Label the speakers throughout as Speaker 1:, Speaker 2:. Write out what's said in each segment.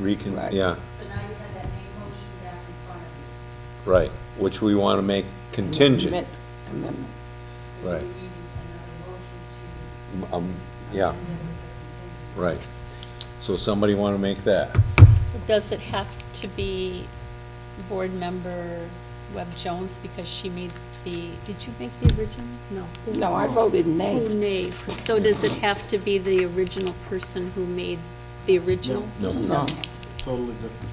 Speaker 1: recon,
Speaker 2: Right.
Speaker 1: yeah,
Speaker 3: So now you have that main motion back in front of you.
Speaker 1: right, which we want to make contingent.
Speaker 2: Amendment- Amendment.
Speaker 3: So
Speaker 1: Right.
Speaker 3: you need another motion to.
Speaker 1: Um, yeah,
Speaker 3: amend it with the
Speaker 1: right. So somebody want to make that?
Speaker 4: Does it have to be board member Webb Jones because she made the, did you make the original? No. who-
Speaker 2: No, I voted
Speaker 4: Who
Speaker 2: nay.
Speaker 4: made, so does it have to be the original person who made the original?
Speaker 1: No. No.
Speaker 2: No.
Speaker 5: Totally different.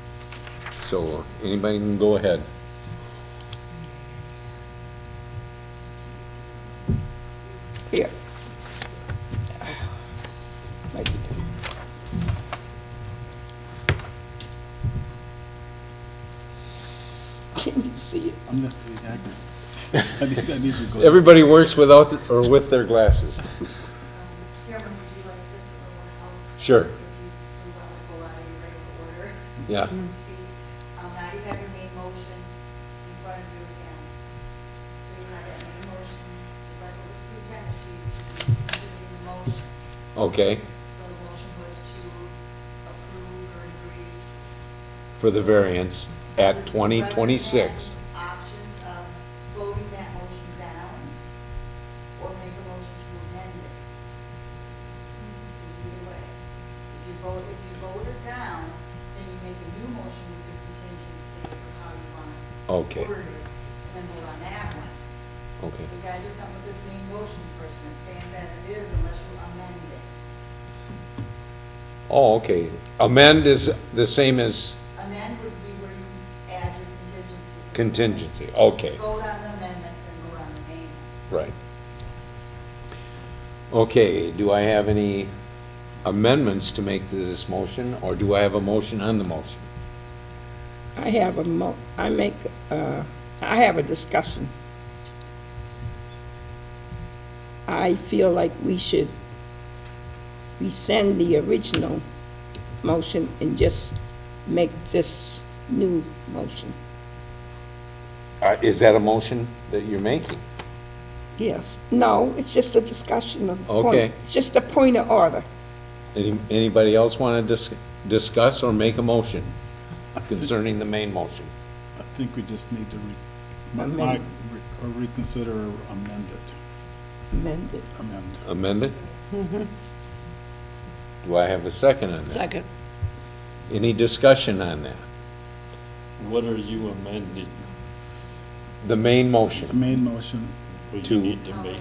Speaker 1: So anybody can go ahead.
Speaker 2: Here. Make it- Can you see it?
Speaker 5: I'm just, I just, I need, I need to go.
Speaker 1: Everybody works without, or with their glasses.
Speaker 3: Um, Chairman, would you like just a little help?
Speaker 1: Sure.
Speaker 3: If you do want to go out of your regular order.
Speaker 1: Yeah.
Speaker 3: so to speak. Um, now you have your main motion in front of you again. So you have that main motion, just like it was presented to you, including the motion.
Speaker 1: Okay,
Speaker 3: So the motion was to approve or agree
Speaker 1: for the variance at twenty twenty-six.
Speaker 3: Options of voting that motion down or make a motion to amend it. Either way. If you vote, if you vote it down, then you make a new motion with your contingency for how you want
Speaker 1: Okay.
Speaker 3: to word it. And then vote on that one.
Speaker 1: Okay,
Speaker 3: You gotta do something with this main motion first, and it stands as it is unless you amend it.
Speaker 1: oh, okay. Amend is the same as
Speaker 3: Amend would be where you add your contingency.
Speaker 1: contingency, okay,
Speaker 3: Vote on the amendment, then vote on the main.
Speaker 1: right. Okay, do I have any amendments to make to this motion, or do I have a motion on the motion?
Speaker 2: I have a mo, I make, uh, I have a discussion. I feel like we should rescind the original motion and just make this new motion.
Speaker 1: Uh, is that a motion that you're making?
Speaker 2: Yes. No, it's just a discussion of. point-
Speaker 1: Okay.
Speaker 2: It's Just a point of order.
Speaker 1: Any, anybody else want to dis- discuss or make a motion concerning the main motion?
Speaker 5: I think we just need to re, my-
Speaker 2: Amend.
Speaker 5: my- re- or reconsider or amend it,
Speaker 2: Amended.
Speaker 5: amend.
Speaker 1: Amended?
Speaker 5: Mm-hmm.
Speaker 1: Do I have a second on that?
Speaker 2: Second.
Speaker 1: Any discussion on that?
Speaker 6: What are you amending?
Speaker 1: The main
Speaker 5: The
Speaker 1: motion,
Speaker 5: main motion,
Speaker 6: What
Speaker 1: To-
Speaker 6: you need to make,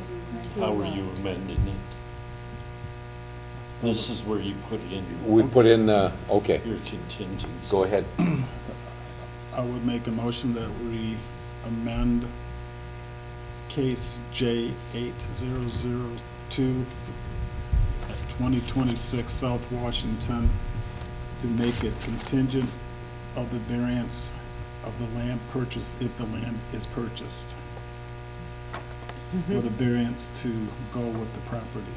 Speaker 6: how are you amending it? This is where you put in
Speaker 1: we put in the, okay,
Speaker 6: your contingency.
Speaker 1: go ahead.
Speaker 5: I would make a motion that we amend case J eight zero zero two at twenty twenty-six South Washington to make it contingent of the variance of the land purchase, if the land is purchased. For the variance to go with the property.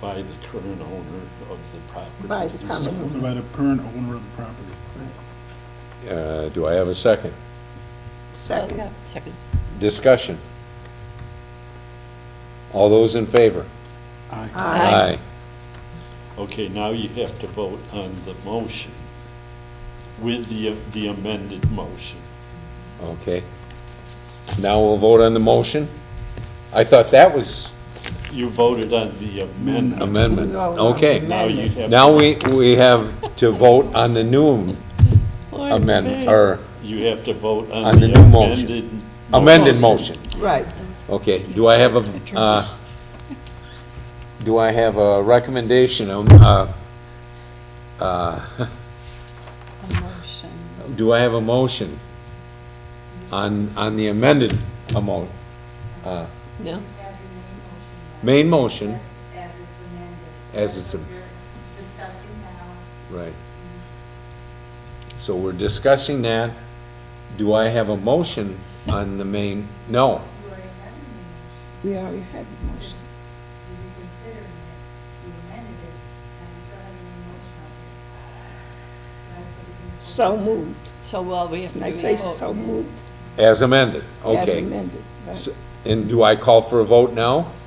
Speaker 6: By the current owner of the property.
Speaker 2: By the
Speaker 6: Mm-hmm.
Speaker 2: common owner.
Speaker 5: By the current owner of the property.
Speaker 1: Uh, do I have a second?
Speaker 2: Second.
Speaker 1: Discussion? All those in favor?
Speaker 5: Aye.
Speaker 2: Aye.
Speaker 6: Okay, now you have to vote on the motion with the, the amended motion.
Speaker 1: Okay. Now we'll vote on the motion? I thought that was
Speaker 6: You voted on the amendment.
Speaker 1: amendment.
Speaker 2: No,
Speaker 1: Okay.
Speaker 2: amendment.
Speaker 6: Now you have.
Speaker 1: Now we, we have to vote on the new amendment, or
Speaker 6: You have to vote
Speaker 1: On
Speaker 6: on
Speaker 1: the
Speaker 6: the
Speaker 1: new motion.
Speaker 6: amended.
Speaker 1: amended motion.
Speaker 2: Right.
Speaker 1: Okay, do I have a, uh, do I have a recommendation, um, uh, uh,
Speaker 4: A motion.
Speaker 1: do I have a motion on, on the amended amo, uh,
Speaker 3: Have
Speaker 2: No.
Speaker 3: your main motion. back. As
Speaker 1: main motion?
Speaker 3: as it's amended.
Speaker 1: As it's am-
Speaker 3: That's what you're Discussing now,
Speaker 1: Right. So we're discussing that. Do I have a motion on the main, no,
Speaker 3: you already have your main motion,
Speaker 2: We already had the motion.
Speaker 3: you reconsidered it, you amended it, and you still have your main motion out there. So that's what you can vote
Speaker 2: So
Speaker 3: on.
Speaker 2: moved.
Speaker 7: So, well, we have to
Speaker 2: And
Speaker 7: do
Speaker 2: I say
Speaker 7: a
Speaker 2: so
Speaker 7: vote.
Speaker 2: moved
Speaker 1: as amended,
Speaker 2: as
Speaker 1: okay.
Speaker 2: amended. right.
Speaker 1: S- And do I call for a vote now?